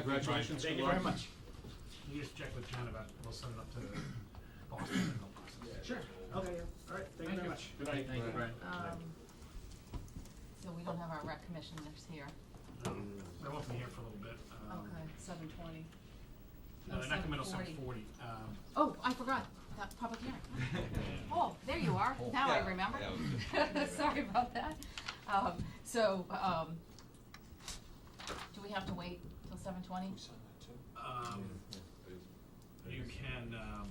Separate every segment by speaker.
Speaker 1: Congratulations.
Speaker 2: Thank
Speaker 1: Good
Speaker 2: you
Speaker 1: luck.
Speaker 2: very much. You just check with John about, we'll send it up to Boston and they'll process it.
Speaker 3: Sure.
Speaker 2: Okay, all right, thank you very much.
Speaker 1: Good night.
Speaker 3: Thank you.
Speaker 1: Right.
Speaker 4: Um, so we don't have our rec commissioners here.
Speaker 2: Um, They won't be here for a little bit. um,
Speaker 4: Okay, Oh, seven twenty.
Speaker 2: No, they're not coming till seven forty. Um,
Speaker 4: Oh, I forgot, that public hearing. Oh, there you are, now I
Speaker 3: yeah,
Speaker 4: remember.
Speaker 3: that was good. Yeah.
Speaker 4: Sorry about that. Um, so, um, do we have to wait till seven twenty?
Speaker 2: um, you can, um,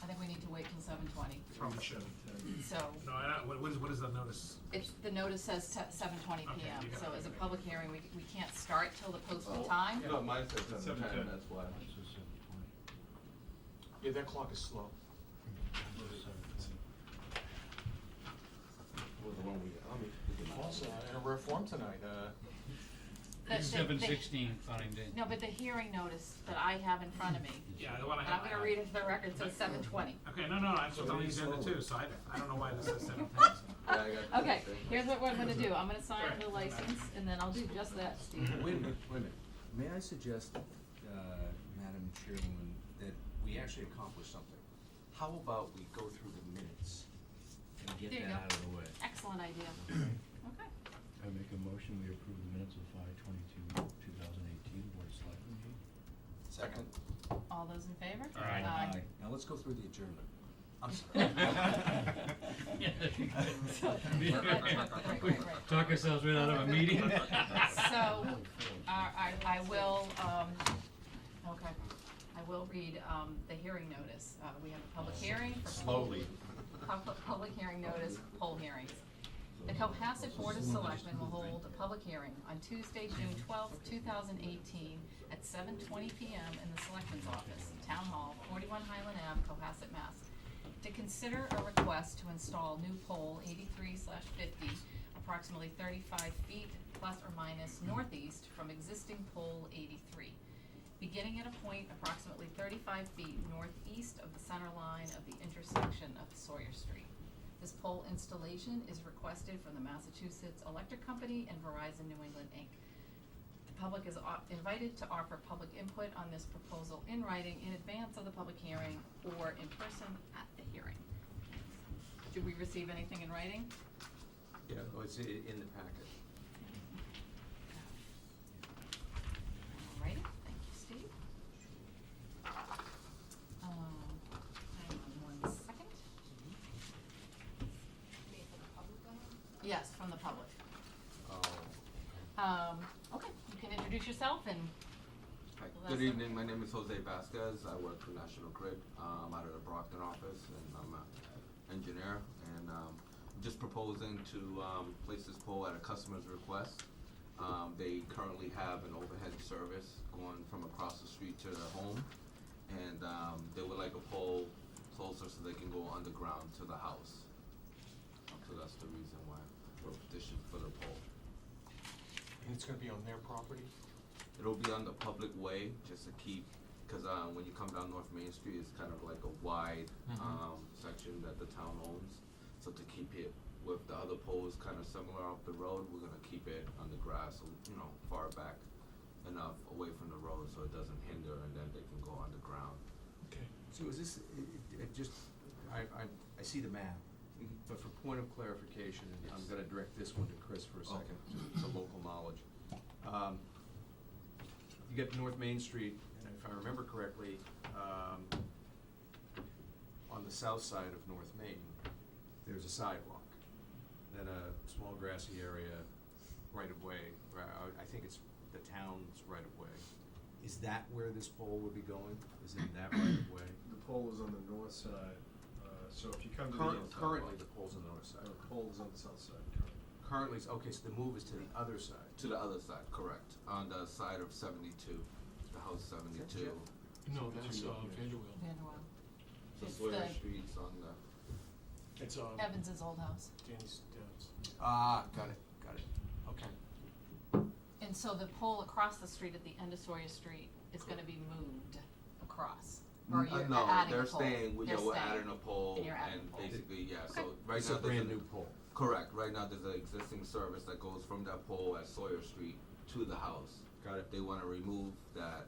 Speaker 4: I think we need to wait till seven twenty,
Speaker 2: probably should. uh,
Speaker 4: so.
Speaker 2: No, I don't, what- what is, what is the notice?
Speaker 4: It's, the notice says te- seven twenty
Speaker 2: Okay,
Speaker 4: PM,
Speaker 2: you got
Speaker 4: so
Speaker 2: it.
Speaker 4: as a public hearing, we, we can't start till the posted
Speaker 3: Oh.
Speaker 4: time.
Speaker 3: No, mine says seven
Speaker 1: Seven
Speaker 3: ten,
Speaker 1: ten.
Speaker 3: that's why.
Speaker 1: Yeah, that clock is slow.
Speaker 3: Was the one we, I'll make- we can-
Speaker 1: Also, in a rare form tonight, uh,
Speaker 4: The- the-
Speaker 5: Seven
Speaker 4: the-
Speaker 5: sixteen, fine day.
Speaker 4: No, but the hearing notice that I have in front of me,
Speaker 2: Yeah, the one I
Speaker 4: and
Speaker 2: have.
Speaker 4: I'm gonna read it to the record, says seven twenty.
Speaker 2: Okay, no, no, I was
Speaker 3: So
Speaker 2: on the
Speaker 3: read
Speaker 2: agenda
Speaker 3: slowly.
Speaker 2: too, so I, I don't know why this is seven ten, so.
Speaker 3: Yeah, I got
Speaker 4: Okay,
Speaker 3: that, right?
Speaker 4: here's what I'm gonna do, I'm gonna sign
Speaker 2: Sorry.
Speaker 4: the license, and then I'll do just that, Steve.
Speaker 6: Wait a minute, wait a minute. May I suggest, uh, Madam Chairwoman, that we actually accomplish something? How about we go through the minutes and get
Speaker 4: There you
Speaker 6: that
Speaker 4: go.
Speaker 6: out of the way?
Speaker 4: Excellent idea. Okay,
Speaker 7: I make a motion, we approve the minutes of five twenty-two, two thousand eighteen, Board of Selectmen meeting.
Speaker 6: Second?
Speaker 4: all those in favor? Uh,
Speaker 2: Aye.
Speaker 6: Now let's go through the adjournment. I'm
Speaker 4: Right, right, right,
Speaker 6: sorry.
Speaker 4: right, right.
Speaker 5: Talk ourselves right out of a meeting.
Speaker 1: Oh.
Speaker 4: So, uh, I, I, I will, um, okay, I will read, um, the hearing notice, uh, we have a public hearing. for-
Speaker 3: Slowly.
Speaker 4: Public, public hearing notice, poll hearings. The Cohasset Board of Selectmen will hold a public hearing on Tuesday, June twelfth, two thousand eighteen, at seven twenty PM in the Selectmen's Office, Town Hall, forty-one Highland Ave, Cohasset, Mass. To consider a request to install new pole eighty-three fifty, approximately thirty-five feet plus or minus northeast from existing pole eighty-three beginning at a point approximately thirty-five feet northeast of the center line of the intersection of Sawyer Street. This pole installation is requested from the Massachusetts Electric Company and Verizon New England, Inc. The public is o- invited to offer public input on this proposal in writing in advance of the public hearing or in person at the hearing. Did we receive anything in writing?
Speaker 6: Yeah, oh, it's i- in the packet.
Speaker 4: All righty, thank you, Steve. Um, hang on one second. Yes, from the public.
Speaker 6: Oh.
Speaker 4: Um, okay, you can introduce yourself and,
Speaker 6: Hi,
Speaker 4: Well, that's
Speaker 6: good
Speaker 4: a-
Speaker 6: evening, my name is Jose Vasquez, I work for National Grid, um, out of the Brockton office, and I'm a engineer, and, um, just proposing to, um, place this pole at a customer's request. Um, they currently have an overhead service going from across the street to their home, and, um, they would like a pole closer so they can go underground to the house. So that's the reason why we're petitioning for the pole.
Speaker 1: and it's gonna be on their property.
Speaker 6: It'll be on the public way, just to keep, because um, when you come down North Main Street, it's kind of like a wide
Speaker 8: Mm-hmm.
Speaker 6: um, section that the town owns. So to keep it with the other poles kind of similar off the road, we're gonna keep it on the grass, so, you know, far back enough away from the road so it doesn't hinder, and then they can go underground.
Speaker 1: Okay.
Speaker 8: So is this, i- i- i- just, I, I, I see the map, but for point of clarification, and I'm gonna direct this one to Chris for a second, just to local knowledge. Um, You get North Main Street, and if I remember correctly, um, on the south side of North Main, there's a sidewalk, then a small grassy area, right of way, ri- I, I think it's the town's right of way. Is that where this pole would be going? Is in that right of way?
Speaker 9: The pole is on the north side, uh, so if you come to the.
Speaker 8: Current-
Speaker 9: outside-
Speaker 8: Currently, the pole's on the north side.
Speaker 9: The pole is on the south side currently.
Speaker 8: Currently, it's- okay, so the move is to the other side.
Speaker 6: To the other side, correct, on the side of 72, the house 72.
Speaker 1: No, that's, uh, Vanderbilt.
Speaker 4: Manuel,
Speaker 6: So
Speaker 4: It's
Speaker 6: Sawyer
Speaker 4: the-
Speaker 6: Street's on the,
Speaker 1: It's, uh,
Speaker 4: Evans's old house.
Speaker 1: Danny's dad's.
Speaker 6: ah, got it, got it, okay.
Speaker 4: And so the pole across the street at the end of Sawyer Street is gonna be moved across, or you're
Speaker 6: Uh,
Speaker 4: adding a pole?
Speaker 6: no, they're staying, we, yeah,
Speaker 4: They're
Speaker 6: we're
Speaker 4: staying.
Speaker 6: adding a pole
Speaker 4: And you're adding a
Speaker 6: and
Speaker 4: pole.
Speaker 6: basically, yeah, so
Speaker 4: Okay.
Speaker 6: right
Speaker 8: It's
Speaker 6: now
Speaker 8: a
Speaker 6: there's
Speaker 8: brand
Speaker 6: an-
Speaker 8: new pole.
Speaker 6: Correct, right now there's an existing service that goes from that pole at Sawyer Street to the house.
Speaker 8: Got it.
Speaker 6: They wanna remove that